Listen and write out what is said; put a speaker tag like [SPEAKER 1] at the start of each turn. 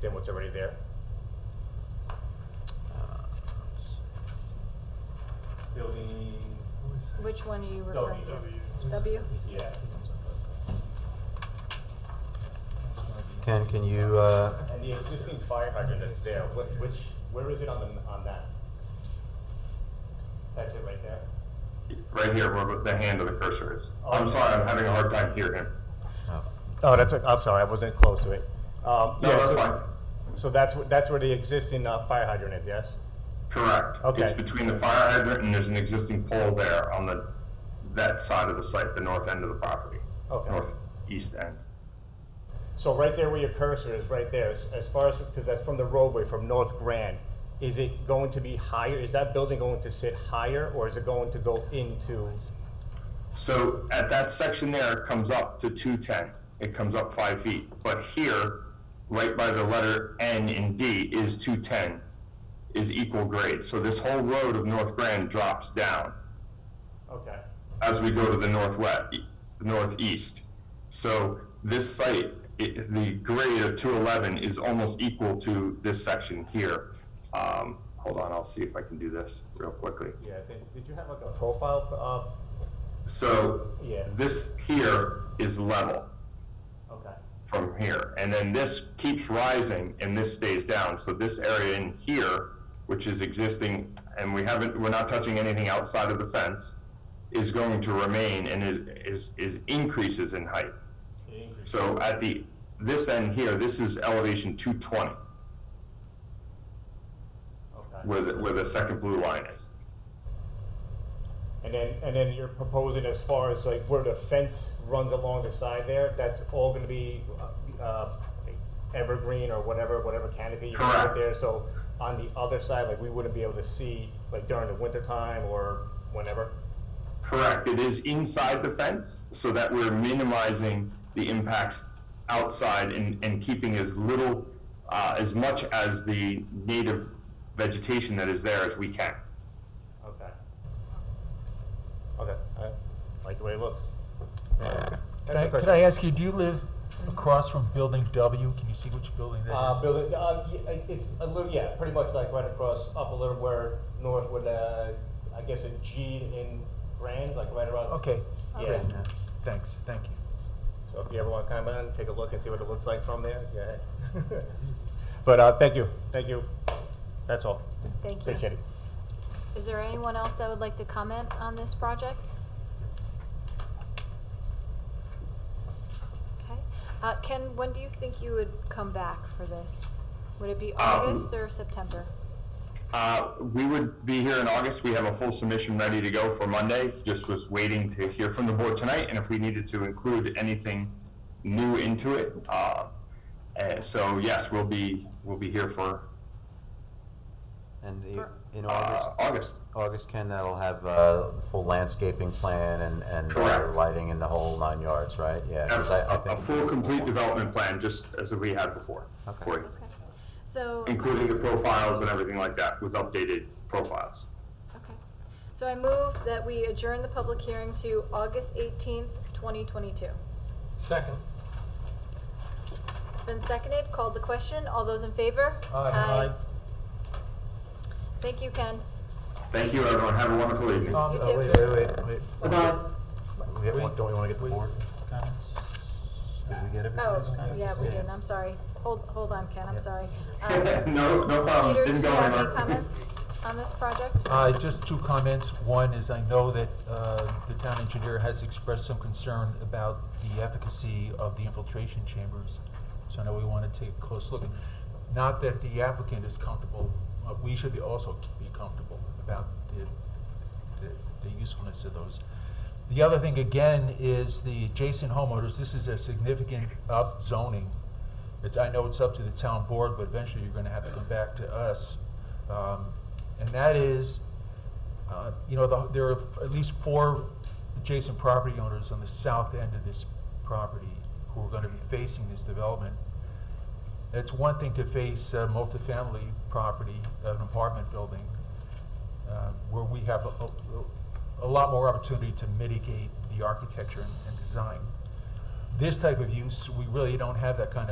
[SPEAKER 1] than what's already there? Building,
[SPEAKER 2] Which one are you referring to?
[SPEAKER 1] W.
[SPEAKER 2] W?
[SPEAKER 1] yeah.
[SPEAKER 3] Ken, can you, uh,
[SPEAKER 1] And the existing fire hydrant that's there, wh- which, where is it on the, on that? That's it right there?
[SPEAKER 4] Right here, where the hand of the cursor is. I'm sorry, I'm having a hard time hearing him.
[SPEAKER 3] oh,
[SPEAKER 1] Oh, that's, I'm sorry, I wasn't close to it. No,
[SPEAKER 4] No, that's fine.
[SPEAKER 1] So that's, wh- that's where the existing uh, fire hydrant is, yes?
[SPEAKER 4] Correct.
[SPEAKER 1] Okay.
[SPEAKER 4] It's between the fire hydrant and there's an existing pole there on the, that side of the site, the north end of the property.
[SPEAKER 1] Okay.
[SPEAKER 4] Northeast end.
[SPEAKER 1] So right there where your cursor is, right there, as- as far as, because that's from the roadway from North Grand, is it going to be higher, is that building going to sit higher, or is it going to go into?
[SPEAKER 4] So at that section there, it comes up to 210. It comes up five feet. But here, right by the letter N in D is 210, is equal grade. So this whole road of North Grand drops down.
[SPEAKER 1] Okay,
[SPEAKER 4] as we go to the northwest, northeast. So this site, it, the grade of 211 is almost equal to this section here. Um, hold on, I'll see if I can do this real quickly.
[SPEAKER 1] yeah, did, did you have like a profile,
[SPEAKER 4] So
[SPEAKER 1] uh, yeah,
[SPEAKER 4] this here is level
[SPEAKER 1] okay,
[SPEAKER 4] from here, and then this keeps rising and this stays down. So this area in here, which is existing, and we haven't, we're not touching anything outside of the fence, is going to remain and is, is, is increases in height.
[SPEAKER 1] it increases.
[SPEAKER 4] So at the, this end here, this is elevation 220,
[SPEAKER 1] okay.
[SPEAKER 4] where the, where the second blue line is.
[SPEAKER 1] And then, and then you're proposing as far as like where the fence runs along the side there, that's all gonna be, uh, uh, evergreen or whatever, whatever canopy you put
[SPEAKER 4] Correct.
[SPEAKER 1] there, so on the other side, like we wouldn't be able to see, like during the winter time or whenever?
[SPEAKER 4] Correct, it is inside the fence, so that we're minimizing the impacts outside and, and keeping as little, uh, as much as the native vegetation that is there as we can.
[SPEAKER 1] Okay. Okay, I like the way it looks.
[SPEAKER 5] Can I, can I ask you, do you live across from building W? Can you see which building that
[SPEAKER 1] Uh,
[SPEAKER 5] is?
[SPEAKER 1] building, uh, y- it- it's a little, yeah, pretty much like right across, up a little where north with, uh, I guess a G in Grand, like right around.
[SPEAKER 5] Okay,
[SPEAKER 1] Yeah,
[SPEAKER 5] great. Thanks, thank you.
[SPEAKER 1] so if you ever want to come in, take a look and see what it looks like from there, yeah. But, uh, thank you, thank you. That's all.
[SPEAKER 2] Thank you.
[SPEAKER 1] Appreciate it.
[SPEAKER 2] Is there anyone else that would like to comment on this project? Okay. Uh, Ken, when do you think you would come back for this? Would it be August or September?
[SPEAKER 4] Uh, we would be here in August. We have a full submission ready to go for Monday. Just was waiting to hear from the board tonight, and if we needed to include anything new into it. Uh, and so yes, we'll be we'll be here for
[SPEAKER 3] and the,
[SPEAKER 2] For-
[SPEAKER 3] in
[SPEAKER 4] uh,
[SPEAKER 3] August,
[SPEAKER 4] August.
[SPEAKER 3] August, Ken, that'll have, uh, the full landscaping plan and, and uh,
[SPEAKER 4] Correct.
[SPEAKER 3] lighting in the whole nine yards, right? Yeah, 'cause I, I
[SPEAKER 4] A, a
[SPEAKER 3] think.
[SPEAKER 4] full complete development plan, just as we had before,
[SPEAKER 3] Okay.
[SPEAKER 4] for you,
[SPEAKER 2] Okay. So,
[SPEAKER 4] including the profiles and everything like that with updated profiles.
[SPEAKER 2] okay. So I move that we adjourn the public hearing to August 18th, 2022.
[SPEAKER 5] Second.
[SPEAKER 2] It's been seconded, called the question. All those in favor?
[SPEAKER 5] Aye.
[SPEAKER 2] Thank you, Ken.
[SPEAKER 4] Thank you, everyone. Have a wonderful evening.
[SPEAKER 5] Um,
[SPEAKER 2] You
[SPEAKER 5] uh,
[SPEAKER 2] too.
[SPEAKER 5] wait, wait, wait, wait.
[SPEAKER 3] We have one- Don't we wanna get the
[SPEAKER 5] Wait.
[SPEAKER 3] board? Did we get everybody's
[SPEAKER 2] Oh,
[SPEAKER 3] comments?
[SPEAKER 2] yeah, we didn't, I'm sorry. Hold, hold on, Ken, I'm
[SPEAKER 3] Yeah.
[SPEAKER 2] sorry. Um,
[SPEAKER 4] no, no problem.
[SPEAKER 2] Peter, do
[SPEAKER 4] Oh, Didn't
[SPEAKER 2] you
[SPEAKER 4] go
[SPEAKER 2] have any
[SPEAKER 4] anywhere.
[SPEAKER 2] comments on this project?
[SPEAKER 5] Uh, just two comments. One is I know that, uh, the town engineer has expressed some concern about the efficacy of the infiltration chambers. So I know we wanna take a close look. Not that the applicant is comfortable, uh, we should be also be comfortable about the, the, the usefulness of those. The other thing again is the adjacent homeowners, this is a significant upzoning. It's, I know it's up to the town board, but eventually you're gonna have to come back to us. Um, And that is, uh, you know, the- there are at least four adjacent property owners on the south end of this property who are gonna be facing this development. It's one thing to face a multifamily property, an apartment building, um, where we have a, a- a lot more opportunity to mitigate the architecture and, and design. This type of use, we really don't have that kind of